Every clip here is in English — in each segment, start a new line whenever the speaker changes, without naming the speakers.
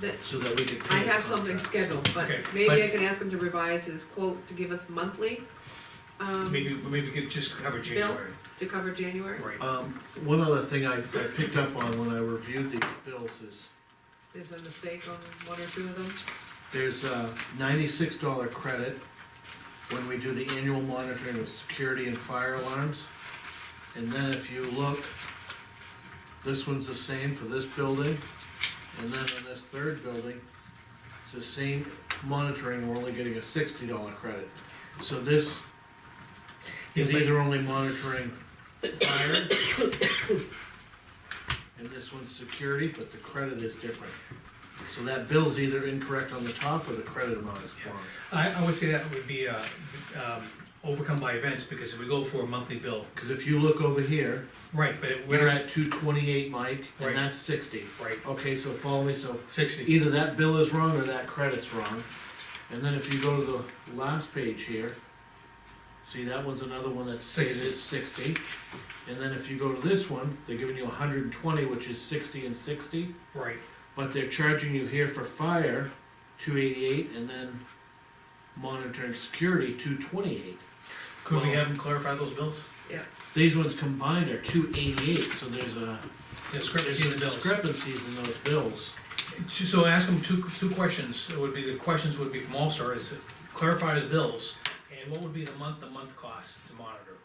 that,
so that we can. pay
I
the
have something
contract.
scheduled, but
Okay,
maybe
but-
I can ask him to revise his quote to give us monthly, um,
Maybe, maybe we could just cover January,
to cover January.
right?
Um, one other thing I, I picked up on when I reviewed the bills is,
There's a mistake on one or two of them.
there's a ninety-six dollar credit when we do the annual monitoring of security and fire alarms. And then if you look, this one's the same for this building, and then on this third building, it's the same monitoring, we're only getting a sixty dollar credit. So this is
Yeah, but-
either only monitoring fire, and this one's security, but the credit is different. So that bill's either incorrect on the top or the credit amount is wrong.
I, I would say that would be, uh, um, overcome by events, because if we go for a monthly bill,
Cause if you look over here,
right, but it- we're
we're
not,
at two twenty-eight, Mike,
Right.
and that's sixty.
right,
Okay, so follow me, so
sixty,
either that bill is wrong or that credit's wrong. And then if you go to the last page here, see, that one's another one that's stated at sixty. And then if you go to this one, they're giving you hundred and twenty, which is sixty and sixty,
right,
but they're charging you here for fire, two eighty-eight, and then monitoring security, two twenty-eight.
could we
Well-
have them clarify those bills?
These ones combined are two eighty-eight, so there's a, there's
Discrepancy in the bills.
discrepancies in those bills.
So ask them two, two questions, it would be, the questions would be from All Star, is clarify his bills, and what would be the month-to-month cost to monitor?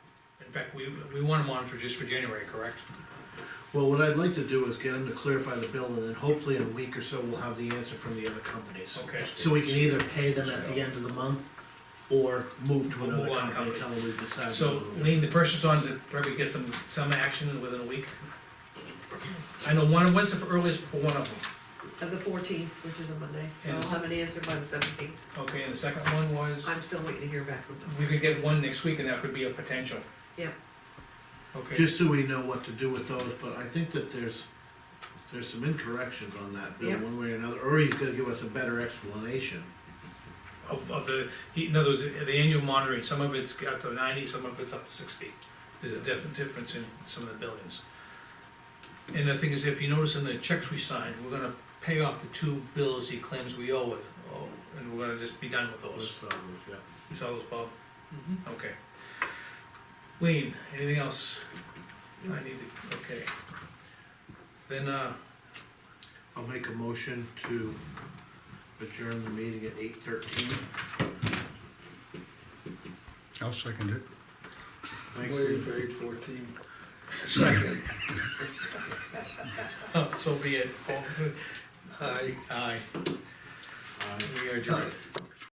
In fact, we, we wanna monitor just for January, correct?
Well, what I'd like to do is get them to clarify the bill, and then hopefully in a week or so, we'll have the answer from the other companies.
Okay.
So we can either pay them at the end of the month, or move to
Move
another
on,
company
company.
until we decide.
So, lean the pressure's on to probably get some, some action within a week. I know one, when's the earliest for one of them?
Uh, the fourteenth, which is a Monday, so I'll
Yes.
have an answer by the seventeenth.
Okay, and the second one was,
I'm still waiting to hear back from them.
we could get one next week and that could be a potential.
Yeah.
Okay,
Just so we know what to do with those, but I think that there's, there's some incorrections on that bill,
Yeah.
one way or another, or he's gonna give us a better explanation.
of, of the, he- in other words, the annual monitoring, some of it's up to ninety, some of it's up to sixty. There's a definite difference in some of the buildings. And the thing is, if you notice in the checks we signed, we're gonna pay off the two bills he claims we owe it, oh, and we're gonna just be done with those.
Those problems, yeah.
You saw those, Bob? Okay. Lean, anything else? I need to, okay. Then, uh,
I'll make a motion to adjourn the meeting at eight thirteen.
I'll second it.
Thanks,
Waiting
Lou.
for eight fourteen.
Second.
so be it.
Aye.
Aye,
Aye.
we are adjourned.